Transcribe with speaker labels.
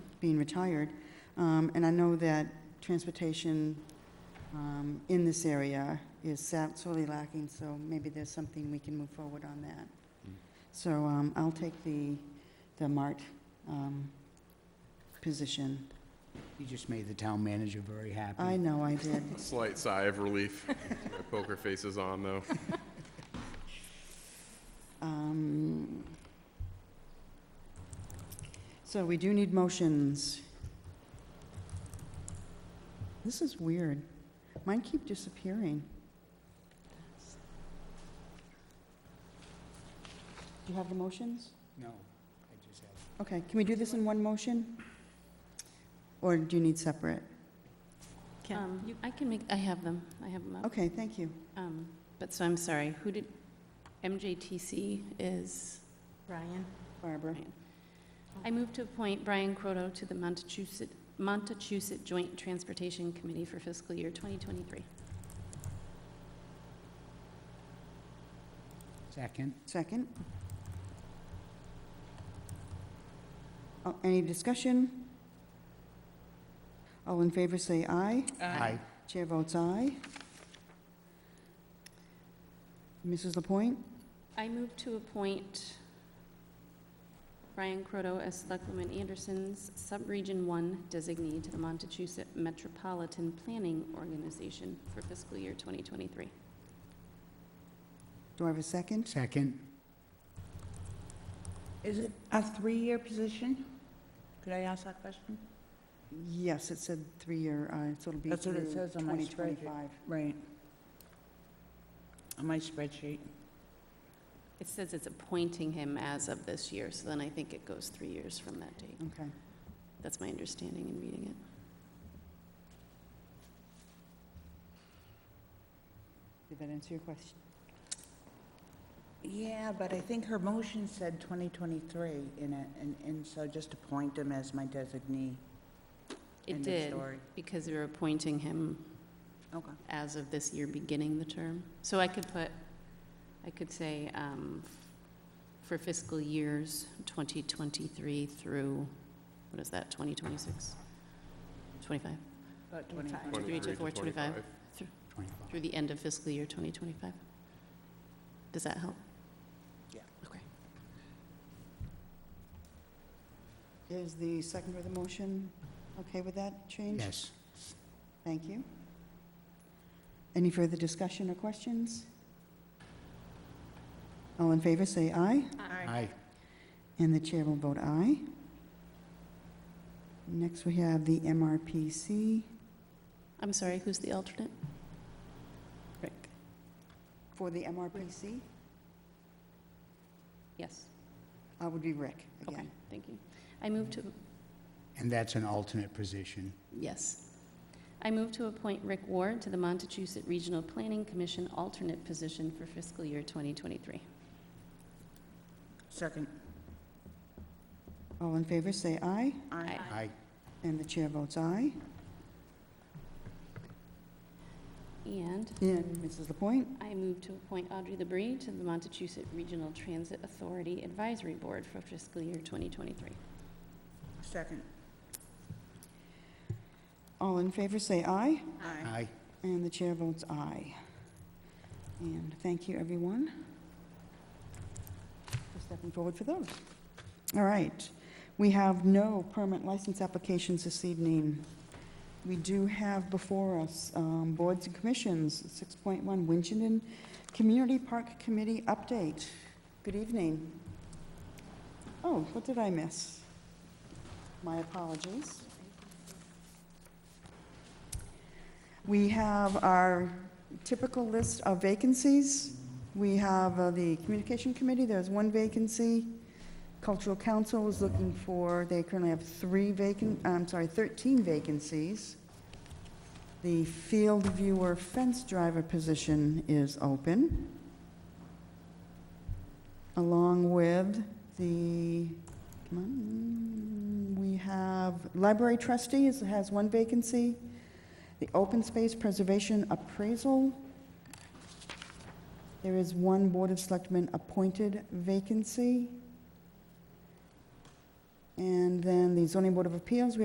Speaker 1: being retired. Um, And I know that transportation um, in this area is sa- sorely lacking, so maybe there's something we can move forward on that.
Speaker 2: Mm.
Speaker 1: So um, I'll take the, the MART um, position.
Speaker 2: You just made the town manager very happy.
Speaker 1: I
Speaker 3: Mm.
Speaker 1: know I did.
Speaker 4: Slight sigh of relief. My poker face is on, though.
Speaker 1: Um, So we do need motions. This is weird. Mine keep disappearing. Do you have the motions?
Speaker 2: No, I just have,
Speaker 1: Okay, can we do this in one motion? Or do you need separate?
Speaker 3: Can-
Speaker 5: Um, I can make, I have them, I have them up.
Speaker 1: Okay, thank you.
Speaker 5: Um, But, so I'm sorry, who did, MJTC is,
Speaker 3: Brian?
Speaker 1: Barbara.
Speaker 5: I move to appoint Brian Croto to the Montachusett, Montachusett Joint Transportation Committee for fiscal year 2023.
Speaker 2: second,
Speaker 1: Second. Oh, Any discussion? All in favor, say aye.
Speaker 3: Uh,
Speaker 2: aye.
Speaker 1: Chair votes aye. Mrs. Lapointe?
Speaker 5: I move to appoint Brian Croto as Selectwoman Anderson's Subregion 1 designee to the Montachusett Metropolitan Planning Organization for fiscal year 2023.
Speaker 1: Do I have a second?
Speaker 2: Second,
Speaker 3: Is it a three-year position? Could I ask that question?
Speaker 1: Yes, it said three-year, uh, so it'll be
Speaker 3: That's what it
Speaker 1: through
Speaker 3: says on my spreadsheet.
Speaker 1: 2025.
Speaker 3: Right. On my spreadsheet.
Speaker 5: It says it's appointing him as of this year, so then I think it goes three years from that date.
Speaker 1: Okay.
Speaker 5: That's my understanding in reading it.
Speaker 1: Did that answer your question?
Speaker 3: Yeah, but I think her motion said 2023 in it, and, and so just appoint him as my designee.
Speaker 5: It
Speaker 3: End of
Speaker 5: did,
Speaker 3: story.
Speaker 5: because we were appointing him
Speaker 3: Okay.
Speaker 5: as of this year, beginning the term. So I could put, I could say, um, for fiscal years 2023 through, what is that, 2026? 25,
Speaker 3: About
Speaker 5: Twenty-five.
Speaker 3: 25.
Speaker 5: 23 to 4, 25.
Speaker 4: 25.
Speaker 2: twenty-five.
Speaker 5: through the end of fiscal year 2025. Does that help?
Speaker 3: Yeah.
Speaker 5: Okay.
Speaker 1: Is the second of the motion okay with that change?
Speaker 2: Yes,
Speaker 1: Thank you. Any further discussion or questions? All in favor, say aye.
Speaker 2: aye.
Speaker 1: And the chair will vote aye. Next, we have the MRPC
Speaker 5: I'm sorry, who's the alternate? Rick.
Speaker 1: For the MRPC,
Speaker 5: Yes,
Speaker 1: I would be Rick
Speaker 5: okay,
Speaker 1: again.
Speaker 5: thank you. I move to
Speaker 2: And that's an alternate position.
Speaker 5: Yes. I move to appoint Rick Ward to the Montechusett Regional Planning Commission alternate position for fiscal year 2023.
Speaker 3: Second.
Speaker 1: All in favor, say aye.
Speaker 3: Aye.
Speaker 5: Aye.
Speaker 2: Aye,
Speaker 1: And the chair votes aye.
Speaker 5: And
Speaker 1: And Mrs. Lapointe?
Speaker 5: I move to appoint Audrey LeBrie to the Montechusett Regional Transit Authority Advisory Board for fiscal year 2023.
Speaker 3: Second.
Speaker 1: All in favor, say aye.
Speaker 3: Aye.
Speaker 2: aye.
Speaker 1: And the chair votes aye. And thank you, everyone, for stepping forward for those. All right. We have no permit license applications this evening. We do have before us um, boards and commissions, 6.1 Winchendon Community Park Committee update. Good evening. Oh, what did I miss? My apologies. We have our typical list of vacancies. We have uh, the Communication Committee, there's one vacancy. Cultural Council is looking for, they currently have three vacant, I'm sorry, 13 vacancies. The Field Viewer Fence Driver position is open, along with the, come on, we have Library Trustee is- has one vacancy. The Open Space Preservation Appraisal, there is one Board of Selectmen appointed vacancy. And then the zoning board of appeals, we